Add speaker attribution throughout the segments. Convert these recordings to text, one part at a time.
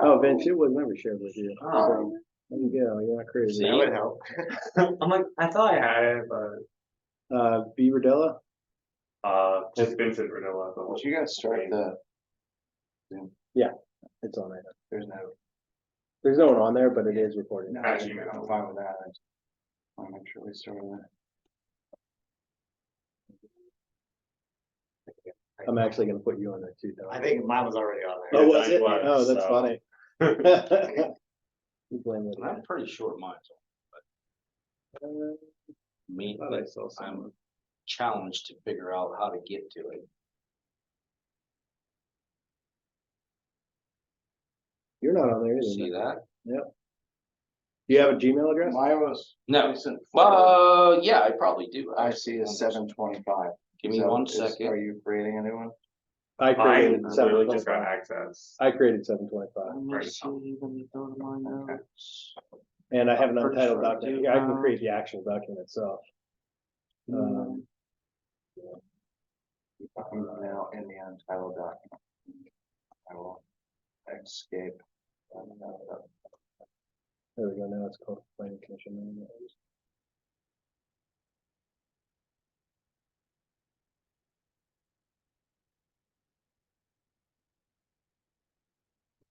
Speaker 1: Oh, Vince, it was never shared with you. so, There you go, you're not crazy.
Speaker 2: Oh. That would help. I'm like, I thought I had it, but
Speaker 1: Uh, Beaver Della?
Speaker 3: Uh, just Vincent Renella. the whole-
Speaker 2: you gotta start the,
Speaker 1: It's on there.
Speaker 2: there's no,
Speaker 1: There's no one on there, but it is recorded.
Speaker 2: no, I'm fine with that. I just Wanna make sure we start with that.
Speaker 1: I'm actually gonna put you on there too. though.
Speaker 2: I think mine was already on there.
Speaker 1: Oh, was
Speaker 3: Yeah,
Speaker 1: it?
Speaker 3: mine
Speaker 1: Oh,
Speaker 3: was,
Speaker 1: that's
Speaker 3: so.
Speaker 1: funny. You blame it.
Speaker 4: I'm pretty sure mine's on, but. Me,
Speaker 3: I thought I saw some.
Speaker 4: I'm challenged to figure out how to get to it.
Speaker 1: You're not on there
Speaker 4: You
Speaker 1: either.
Speaker 4: See
Speaker 1: man.
Speaker 4: that?
Speaker 1: Do you have a Gmail address?
Speaker 2: Mine was.
Speaker 4: No,
Speaker 2: recent.
Speaker 4: uh, yeah, I probably do.
Speaker 2: I see is seven twenty-five.
Speaker 4: Give me one second.
Speaker 2: Are you creating a new one?
Speaker 1: I
Speaker 3: Mine
Speaker 1: created seven
Speaker 3: literally just got
Speaker 1: twenty-five.
Speaker 3: access.
Speaker 1: I creted seven twenty-five
Speaker 3: Right.
Speaker 2: Okay.
Speaker 1: and I have an
Speaker 2: I'm pretty
Speaker 1: untitled
Speaker 2: sure I
Speaker 1: document.
Speaker 2: do.
Speaker 1: I can create the actual document itself.
Speaker 4: Uh,
Speaker 2: Mm-hmm.
Speaker 1: Um,
Speaker 2: I'm now in the untitled document. I will escape.
Speaker 1: there we go. Now it's called planning commission.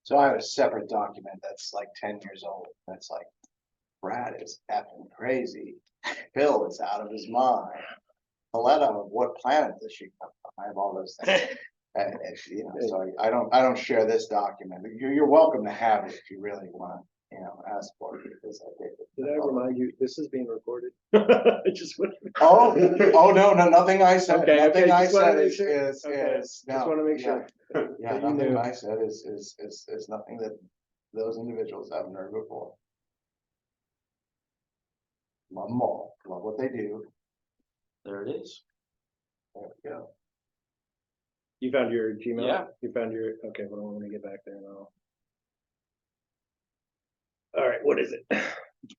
Speaker 2: So I have a separate document that's like ten years old. That's like Brad is effing crazy. Bill is out of his mind. Paletta, what planet does she come from? I have all those things. And, and, you know, so I don't, I don't share this document. You're, you're welcome to have it if you really want, you know, ask for it. because I did it.
Speaker 1: Did I remind you, this is being recorded? I just want,
Speaker 2: Oh, oh, no, no, nothing I said,
Speaker 1: Okay, okay,
Speaker 2: nothing I
Speaker 1: just wanna
Speaker 2: said
Speaker 1: make
Speaker 2: is,
Speaker 1: sure.
Speaker 2: is,
Speaker 1: Okay,
Speaker 2: is.
Speaker 1: just
Speaker 2: no,
Speaker 1: wanna make
Speaker 2: yeah,
Speaker 1: sure.
Speaker 2: Yeah,
Speaker 1: that you
Speaker 2: nothing
Speaker 1: knew.
Speaker 2: I said is, is, is, is nothing that those individuals haven't heard before. Love them all, love what they do,
Speaker 4: There it is.
Speaker 2: there we go.
Speaker 1: you found your Gmail?
Speaker 4: Yeah.
Speaker 1: You found your, okay, well, I'm gonna get back there and I'll. All right, what is it?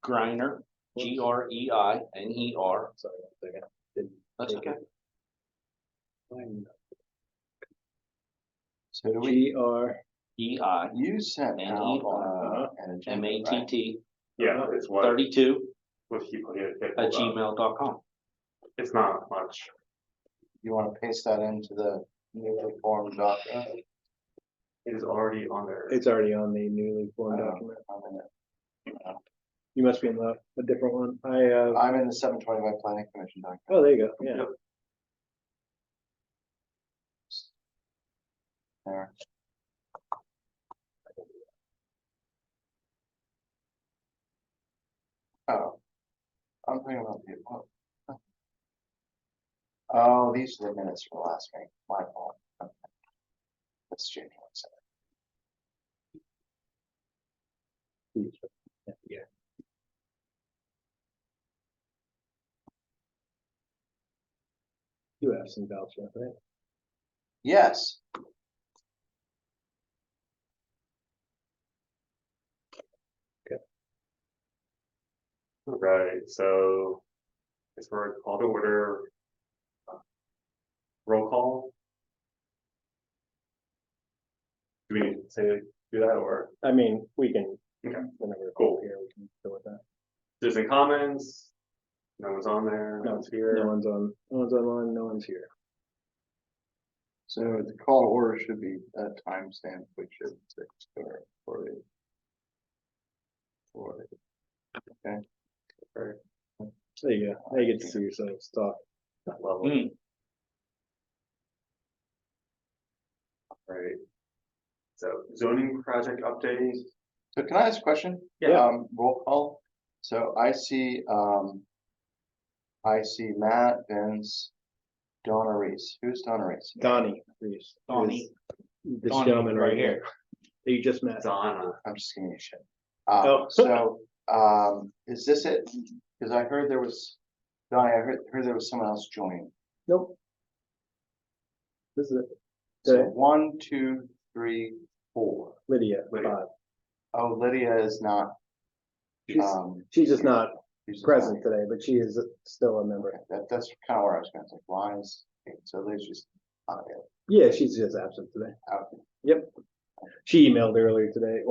Speaker 4: Griner, G R E I N E R.
Speaker 1: Sorry, one second. Didn't-
Speaker 4: That's
Speaker 1: Thank
Speaker 4: okay.
Speaker 1: find
Speaker 2: So do we,
Speaker 1: G R,
Speaker 4: E I
Speaker 2: you sent
Speaker 4: And
Speaker 2: out,
Speaker 4: eat on,
Speaker 2: uh.
Speaker 1: uh-huh.
Speaker 2: an agenda,
Speaker 4: E M A T
Speaker 2: right?
Speaker 4: T
Speaker 3: Yeah, it's what,
Speaker 4: thirty-two
Speaker 3: what people here. get
Speaker 4: at
Speaker 3: pulled up.
Speaker 4: gmail.com.
Speaker 3: It's not much.
Speaker 2: You wanna paste that into the newly formed document?
Speaker 3: It is already on there.
Speaker 1: it's already on the newly formed
Speaker 2: I know.
Speaker 1: document.
Speaker 2: I'm in it.
Speaker 1: You must be in the, a different one. I, uh,
Speaker 2: I'm in the seven twenty-five planning commission document.
Speaker 1: oh, there you go, yeah.
Speaker 3: Yep.
Speaker 2: There. Oh. I'm thinking about the. oh. Oh, these are the minutes from last meeting, my fault. Okay. Let's change one second.
Speaker 1: Yeah. You have some doubts, right?
Speaker 2: Yes.
Speaker 3: Right, so it's for a call to order. uh, Roll call. Do we need to say, do that or
Speaker 1: I mean, we can,
Speaker 3: Okay.
Speaker 1: whenever
Speaker 3: Cool.
Speaker 1: we're here, we can go with that.
Speaker 3: there's any comments? No one's on there, no
Speaker 1: No,
Speaker 3: one's
Speaker 1: No
Speaker 3: here.
Speaker 1: one's on, no one's online, no one's here.
Speaker 2: So the call to order should be a timestamp, which is six or forty. Forty.
Speaker 1: There you go. Now you get to see yourselves talk.
Speaker 3: Level.
Speaker 4: Hmm.
Speaker 3: Right. So zoning project update,
Speaker 2: So can I ask a question?
Speaker 3: Yeah.
Speaker 2: Um, roll call. So I see, um. I see Matt, Vince, Donna Reese. Who's Donna Reese?
Speaker 1: Donnie Reese.
Speaker 4: Donnie.
Speaker 1: This this
Speaker 4: Donnie,
Speaker 1: gentleman
Speaker 4: right
Speaker 1: right here. That you just met.
Speaker 3: Donna,
Speaker 2: I'm just giving you shit.
Speaker 1: Oh.
Speaker 2: Uh, so, um, is this it? Cause I heard there was, Donnie, I heard, heard there was someone else joining.
Speaker 1: Nope. This is it.
Speaker 2: So
Speaker 1: Okay.
Speaker 2: one, two, three, four.
Speaker 1: Lydia,
Speaker 3: Lydia.
Speaker 1: five.
Speaker 2: Oh, Lydia is not,
Speaker 1: She's,
Speaker 2: um.
Speaker 1: she's just not
Speaker 2: she's just not
Speaker 1: present
Speaker 2: here.
Speaker 1: today, but she is still a member.
Speaker 2: Okay, That, that's kind of where I was going to say, why is, okay, so Lydia's just not available.
Speaker 1: Yeah, she's just absent today.
Speaker 2: Okay.
Speaker 1: She emailed earlier today,